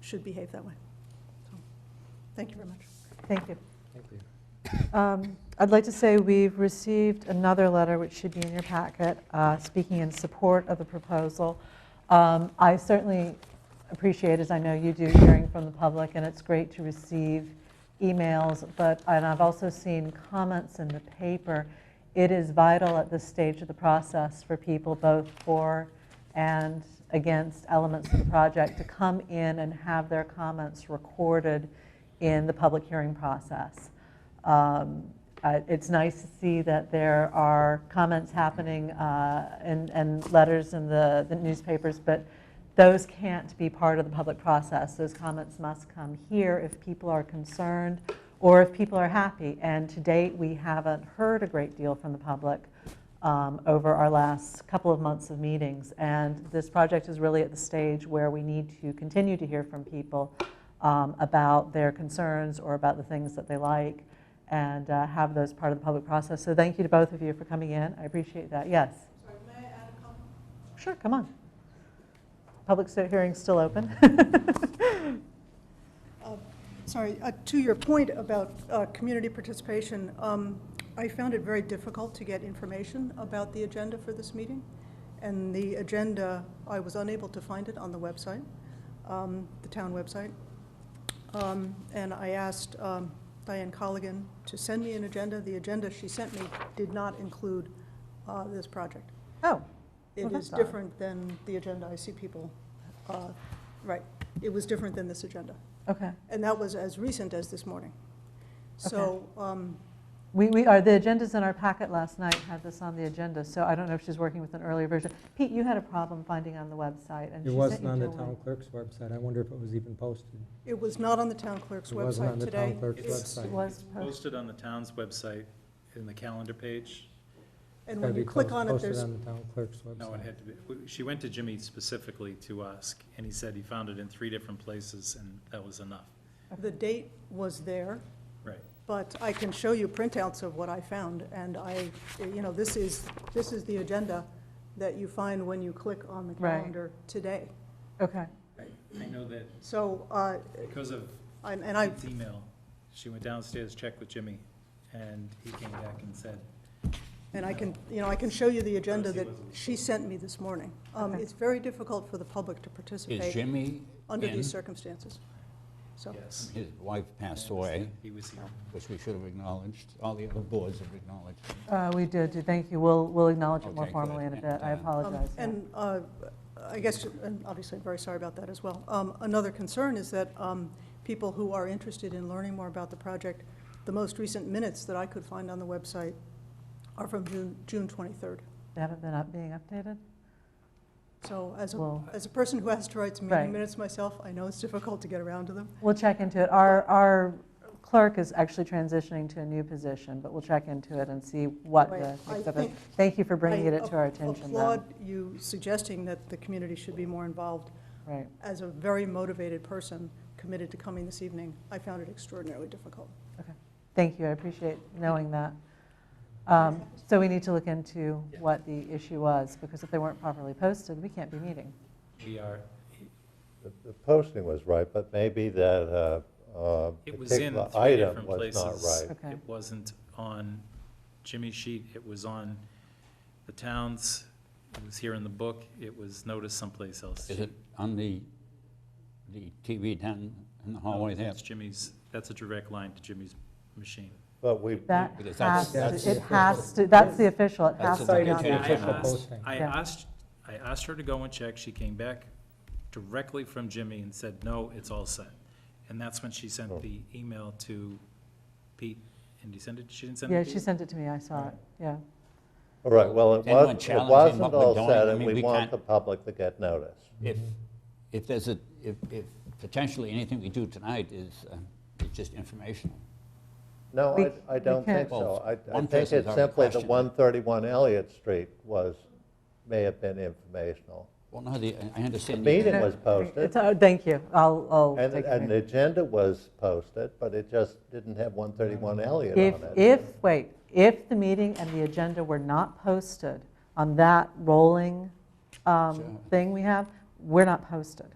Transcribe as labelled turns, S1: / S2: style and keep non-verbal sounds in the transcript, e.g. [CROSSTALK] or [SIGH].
S1: should behave that way. So, Thank you very much.
S2: Thank you.
S3: Thank you.
S2: Um, I'd like to say we've received another letter, which should be in your packet, uh, speaking in support of the proposal. Um, I certainly appreciate, as I know you do, hearing from the public, and it's great to receive emails, but, and I've also seen comments in the paper. It is vital at this stage of the process for people, both for and against elements of the project, to come in and have their comments recorded in the public hearing process. Um, uh, It's nice to see that there are comments happening uh, and and letters in the the newspapers, but those can't be part of the public process. Those comments must come here if people are concerned or if people are happy. And to date, we haven't heard a great deal from the public um, over our last couple of months of meetings. And this project is really at the stage where we need to continue to hear from people um, about their concerns or about the things that they like and uh, have those part of the public process. So thank you to both of you for coming in. I appreciate that. Yes? Sure, come on. Public sta- hearing's still open. [LAUGHS]
S1: Uh, Sorry, uh, to your point about uh, community participation, um, I found it very difficult to get information about the agenda for this meeting. And the agenda, I was unable to find it on the website, um, the town website. Um, And I asked um, Diane Colligan to send me an agenda. The agenda she sent me did not include uh, this project.
S2: Oh, Well,
S1: It
S2: that's
S1: is
S2: odd.
S1: different than the agenda I see people, uh, right, it was different than this agenda.
S2: okay.
S1: And that was as recent as this morning. So, um,
S2: We, we are, the agendas in our packet last night had this on the agenda, so I don't know if she's working with an earlier version. Pete, you had a problem finding on the website, and she sent
S3: It
S2: you to a
S3: wasn't on the
S2: link.
S3: town clerk's website. I wonder if it was even posted.
S1: it was not on the town clerk's
S3: It wasn't on
S1: website
S3: the town
S1: today.
S3: clerk's
S1: It's-
S2: It
S3: website.
S2: was
S4: It's
S2: posted.
S4: posted on the town's website in the calendar page.
S1: And
S3: Gotta
S1: when you
S3: be
S1: click
S3: pos-
S1: on it,
S3: Posted
S1: there's,
S3: on the town clerk's website.
S4: No, it had to be, we- she went to Jimmy specifically to ask, and he said he found it in three different places, and that was enough.
S1: the date was there,
S4: Right.
S1: but I can show you printouts of what I found. And I, you know, this is, this is the agenda that you find when you click on the
S2: Right.
S1: calendar today.
S2: Okay,
S4: I know that
S1: So, uh,
S4: because of
S1: I'm- and I,
S4: Pete's email, she went downstairs, checked with Jimmy, and he came back and said,
S1: And I can, you know, I can show you the agenda that
S4: Rosie wasn't.
S1: she sent me this morning. Um,
S2: Okay.
S1: It's very difficult for the public to
S5: Is
S1: participate
S5: Jimmy
S1: under
S5: in?
S1: these circumstances. So,
S4: yes.
S5: His wife passed away,
S4: He was here.
S5: which we should have acknowledged, all the other boards have acknowledged.
S2: Uh, we did, do- thank you, we'll, we'll acknowledge it more
S5: Okay, good.
S2: formally in a bit, I
S5: And, uh,
S1: um,
S2: apologize. yeah.
S1: and uh, I guess, and obviously, I'm very sorry about that as well. Um, Another concern is that um, people who are interested in learning more about the project, the most recent minutes that I could find on the website are from June- June 23rd.
S2: They haven't been up, being updated?
S1: So as a,
S2: We'll,
S1: as a person who has to write some
S2: Right.
S1: meeting minutes myself, I know it's difficult to get around to them.
S2: we'll check into it. Our, our clerk is actually transitioning to a new position, but we'll check into it and see what
S1: Right.
S2: the
S1: I
S2: next step is.
S1: think-
S2: Thank you for bringing
S1: I
S2: it to our
S1: ap-
S2: attention then.
S1: applaud you suggesting that the community should be more involved.
S2: Right,
S1: As a very motivated person committed to coming this evening, I found it extraordinarily difficult.
S2: thank you, I appreciate knowing that. Um, So we need to look into
S4: Yeah.
S2: what the issue was, because if they weren't properly posted, we can't be meeting.
S4: We are,
S6: The- The posting was right, but maybe that uh, uh,
S4: it was in
S6: particular
S4: three
S6: item
S4: different
S6: was
S4: places.
S6: not
S2: [LAUGHS]
S6: right.
S2: Okay.
S4: It wasn't on Jimmy's sheet, it was on the town's, it was here in the book, it was noticed someplace else.
S5: Is it on the, the TV down in the hallway there?
S4: That's Jimmy's, that's a direct line to Jimmy's machine.
S6: But we,
S2: That
S5: Because
S2: has,
S5: that's-
S3: That's
S2: to-
S3: the
S2: it has to, that's the official, it
S5: That's
S2: has
S5: the
S2: to be on
S3: official
S2: there.
S4: I
S3: official
S4: asked,
S3: posting.
S4: I
S2: Yeah.
S4: asked, I asked her to go and check, she came back directly from Jimmy and said, no, it's all set. And that's when she
S6: Oh.
S4: sent the email to Pete, and he sent it, she didn't send
S2: Yeah,
S4: it to
S2: she
S4: you?
S2: sent it to me, I saw it, yeah.
S6: all right, well, it
S5: Is anyone
S6: was- it
S5: challenging
S6: wasn't
S5: what we're
S6: all
S5: doing?
S6: said,
S5: I
S6: and
S5: mean,
S6: we
S5: we
S6: want
S5: can't-
S6: the public to get notice.
S5: If, if there's a, if, if potentially anything we do tonight is, uh, it's just informational.
S6: No,
S2: We-
S6: I- I
S2: we
S6: don't
S2: can't-
S6: think so. I- I
S5: One
S6: think
S5: person's
S6: it's
S5: already
S6: simply the
S5: questioned it.
S6: 131 Elliott Street was, may have been informational.
S5: Well, no, the, I understand.
S6: The
S5: you-
S6: meeting
S2: No,
S6: was posted,
S2: it's- oh, Thank you, I'll, I'll
S6: and
S2: take
S6: and the
S2: it.
S6: agenda was posted, but it just didn't have 131 Elliott
S2: If,
S6: on it.
S2: if, wait, if the meeting and the agenda were not posted on that rolling um,
S5: Sure.
S2: thing we have, we're not posted.